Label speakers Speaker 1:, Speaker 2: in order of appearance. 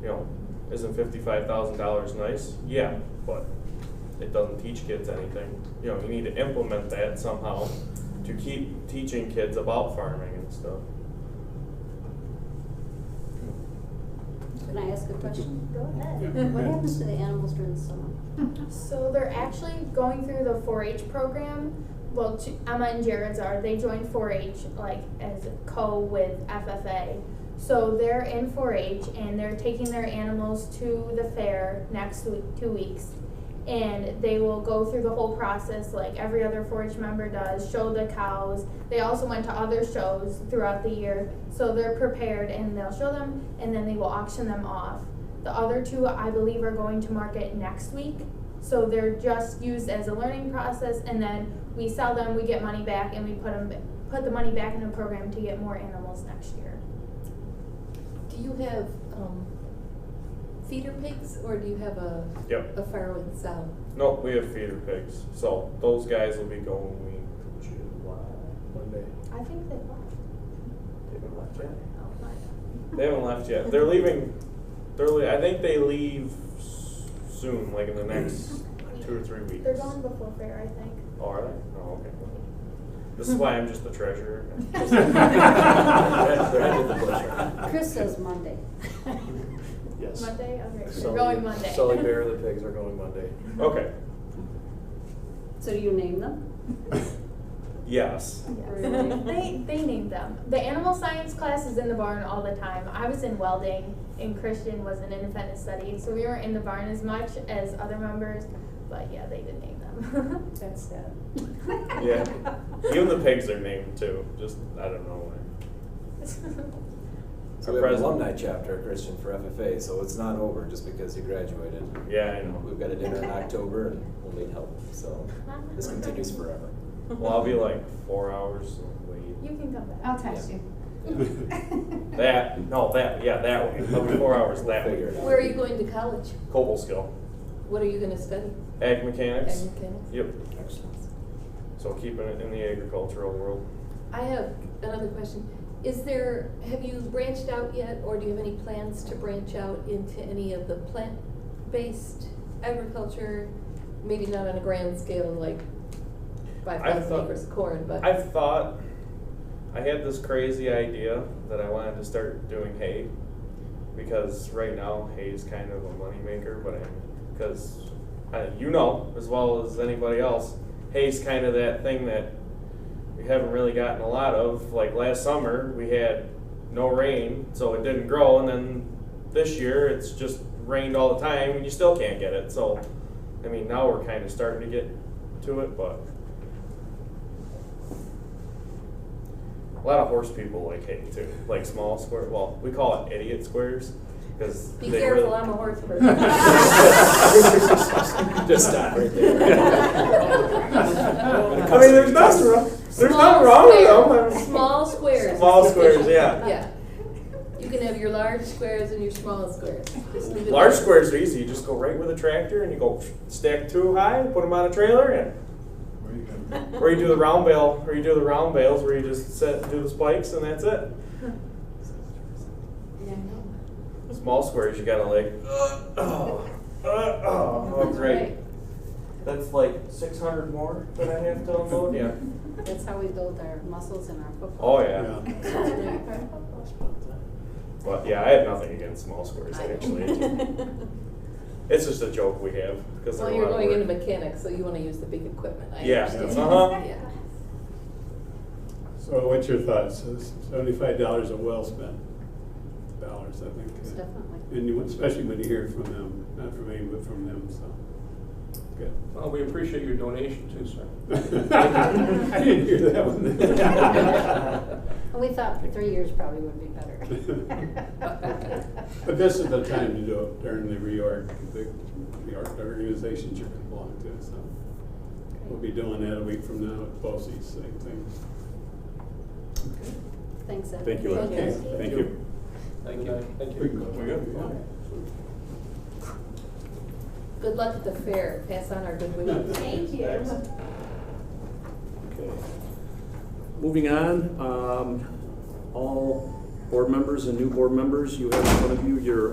Speaker 1: you know, isn't fifty-five thousand dollars nice? Yeah, but it doesn't teach kids anything. You know, you need to implement that somehow to keep teaching kids about farming and stuff.
Speaker 2: Can I ask a question?
Speaker 3: Go
Speaker 4: Yeah.
Speaker 3: ahead.
Speaker 2: What happens to the animals during the summer?
Speaker 3: So they're actually going through the 4-H program. Well, J- Emma and Jared's are. They joined 4-H like as co with FFA. So they're in 4-H and they're taking their animals to the fair next week, two weeks. And they will go through the whole process like every other 4-H member does, show the cows. They also went to other shows throughout the year, so they're prepared and they'll show them and then they will auction them off. The other two, I believe, are going to market next week. So they're just used as a learning process, and then we sell them, we get money back, and we put them, put the money back in the program to get more animals next year.
Speaker 5: Do you have, um, feeder pigs or do you have a,
Speaker 1: Yep.
Speaker 5: a farrowing sow?
Speaker 1: No, we have feeder pigs, so those guys will be going in July. Monday.
Speaker 3: I think they left.
Speaker 1: They haven't left yet.
Speaker 3: Oh, my.
Speaker 1: They haven't left yet. They're leaving. They're. Le- I think they leave s- soon, like in the next two or three weeks.
Speaker 3: They're gone before fair, I think.
Speaker 1: Oh, are they? Oh, okay. This is why I'm just the treasurer.
Speaker 2: Chris says Monday.
Speaker 6: Yes.
Speaker 3: Monday, okay,
Speaker 6: Sully-
Speaker 3: they're going Monday.
Speaker 6: Sully Bear, the pigs are going Monday.
Speaker 1: Okay.
Speaker 2: So do you name them?
Speaker 1: Yes.
Speaker 2: Really?
Speaker 3: They, they named them. The animal science class is in the barn all the time. I was in welding and Christian was in independent study, so we weren't in the barn as much as other members, but yeah, they did name them.
Speaker 5: That's sad.
Speaker 1: Yeah. Even the pigs are named too. Just I don't know why.
Speaker 4: So we have an
Speaker 1: President.
Speaker 4: alumni chapter at Christian for FFA, so it's not over just because you graduated.
Speaker 1: Yeah, I know.
Speaker 4: We've got a dinner in October and we'll need help, so this continues forever.
Speaker 1: Well, I'll be like four hours late.
Speaker 3: You can come back.
Speaker 7: I'll text you.
Speaker 1: That no, that yeah, that way. I'll be four hours that
Speaker 4: Figure
Speaker 1: way.
Speaker 4: it out.
Speaker 5: Where are you going to college?
Speaker 1: Cobble skill,
Speaker 5: What are you gonna study?
Speaker 1: ag mechanics.
Speaker 5: Ag mechanics?
Speaker 1: Yep. So keeping it in the agricultural world.
Speaker 5: I have another question. Is there, have you branched out yet or do you have any plans to branch out into any of the plant-based agriculture? Maybe not on a grand scale like five
Speaker 1: I've
Speaker 5: thousand
Speaker 1: thought-
Speaker 5: acres of corn, but.
Speaker 1: I've thought I had this crazy idea that I wanted to start doing hay because right now hay is kind of a moneymaker, but I because uh, you know as well as anybody else, hay's kind of that thing that we haven't really gotten a lot of. Like last summer, we had no rain, so it didn't grow, and then this year it's just rained all the time, and you still can't get it. So, I mean, now we're kind of starting to get to it, but a lot of horse people like hay too, like small square. Well, we call it idiot squares because
Speaker 5: Be careful, I'm a horse person.
Speaker 4: Just stop right there.
Speaker 1: I mean, there's nothing wrong. There's nothing wrong with them. I'm-
Speaker 5: Small squares.
Speaker 1: Small
Speaker 5: is
Speaker 1: squares,
Speaker 5: sufficient.
Speaker 1: yeah.
Speaker 5: Yeah. You can have your large squares and your small squares. Just leave it
Speaker 1: Large
Speaker 5: there.
Speaker 1: squares are easy. You just go right with a tractor and you go stack two high, put them on a trailer, and or you do the round bale, or you do the round bales where you just set do the spikes and that's it.
Speaker 5: Yeah, I know.
Speaker 1: Small squares, you gotta like, uh, oh, uh, oh, oh,
Speaker 5: That's
Speaker 1: great.
Speaker 5: right.
Speaker 1: That's like 600 more that I have to unload. Yeah.
Speaker 2: That's how we build our muscles and our football.
Speaker 1: Oh yeah. But yeah, I have nothing against small squares actually. it's just a joke we have because
Speaker 5: Well, you're going into mechanics, so you wanna use the big equipment, I
Speaker 1: Yeah,
Speaker 5: understand.
Speaker 1: uh-huh.
Speaker 5: Yeah.
Speaker 8: So what's your thoughts? Seventy-five dollars are well spent dollars, I think.
Speaker 2: It's Definitely.
Speaker 8: And you, especially when you hear from them, not from me, but from them, so, good.
Speaker 9: Well, we appreciate your donation too, sir.
Speaker 8: I didn't hear that one.
Speaker 2: And we thought three years probably would be better.
Speaker 8: But this is the time to do it during the reorg, the, the org- the organizations you're gonna belong to, so. We'll be doing that a week from now at BOSI's, same thing.
Speaker 2: Thanks, Ed.
Speaker 6: Thank you, Ed.
Speaker 8: Okay,
Speaker 6: Thank you.
Speaker 9: Thank you. Thank
Speaker 8: We can go.
Speaker 1: We good?
Speaker 5: Good luck at the fair, pass on our good wishes.
Speaker 3: Thank you.
Speaker 6: Okay. Moving on, um, all board members and new board members, you have in front of you your